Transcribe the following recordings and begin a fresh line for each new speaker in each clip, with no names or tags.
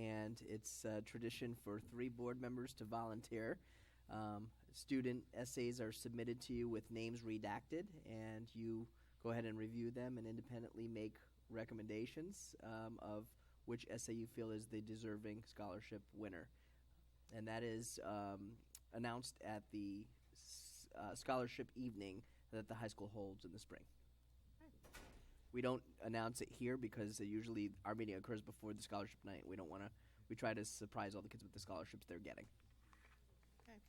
and it's a tradition for three board members to volunteer. Um, student essays are submitted to you with names redacted, and you go ahead and review them and independently make recommendations um, of which essay you feel is the deserving scholarship winner. And that is um, announced at the s- uh, scholarship evening that the high school holds in the spring. We don't announce it here because uh, usually our meeting occurs before the scholarship night. We don't want to. We try to surprise all the kids with the scholarships they're getting.
Okay.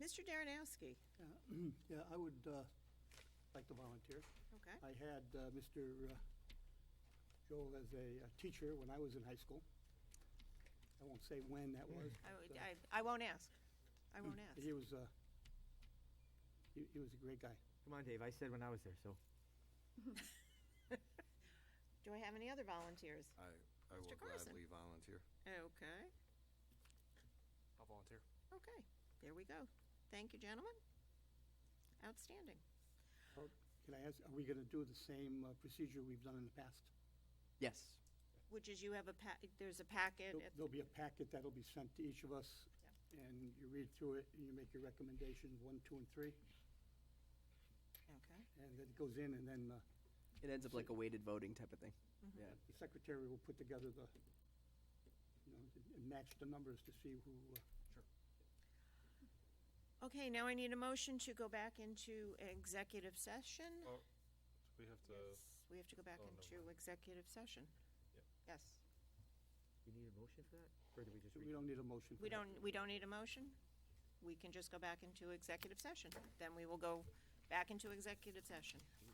Mr. Darrenowski,
Yeah, Yeah, I would uh, like to volunteer.
okay,
I had uh, Mr. uh, Joel as a uh, teacher when I was in high school. I won't say when that was.
I,
but,
would-
uh,
I, I won't ask, I won't ask.
He was, uh, he he was a great guy.
Come on, Dave. I said when I was there, so.
Do I have any other volunteers?
I, I
Mr.
will
Carson.
gladly volunteer.
Okay,
I'll volunteer.
okay, there we go. Thank you, gentlemen. Outstanding.
Oh, Can I ask, are we going to do the same uh, procedure we've done in the past?
Yes.
Which is you have a pa, there's a packet
There'll
at
there'll be a packet that'll be sent to each of us,
Yeah.
and you read through it, and you make your recommendations, one, two, and three,
Okay,
and then it goes in, and then uh,
It ends up like a weighted voting type of thing. Yeah.
The secretary will put together the, you know, and match the numbers to see who, uh,
okay, now I need a motion to go back into executive session.
Oh, We have to,
Yes, We have to go back
oh, no,
into
no.
executive session.
Yep.
Yes,
You need a motion for that? Or do we just
we
read?
don't need a motion.
we
for that.
don't, we don't need a motion. We can just go back into executive session, then we will go back into executive session.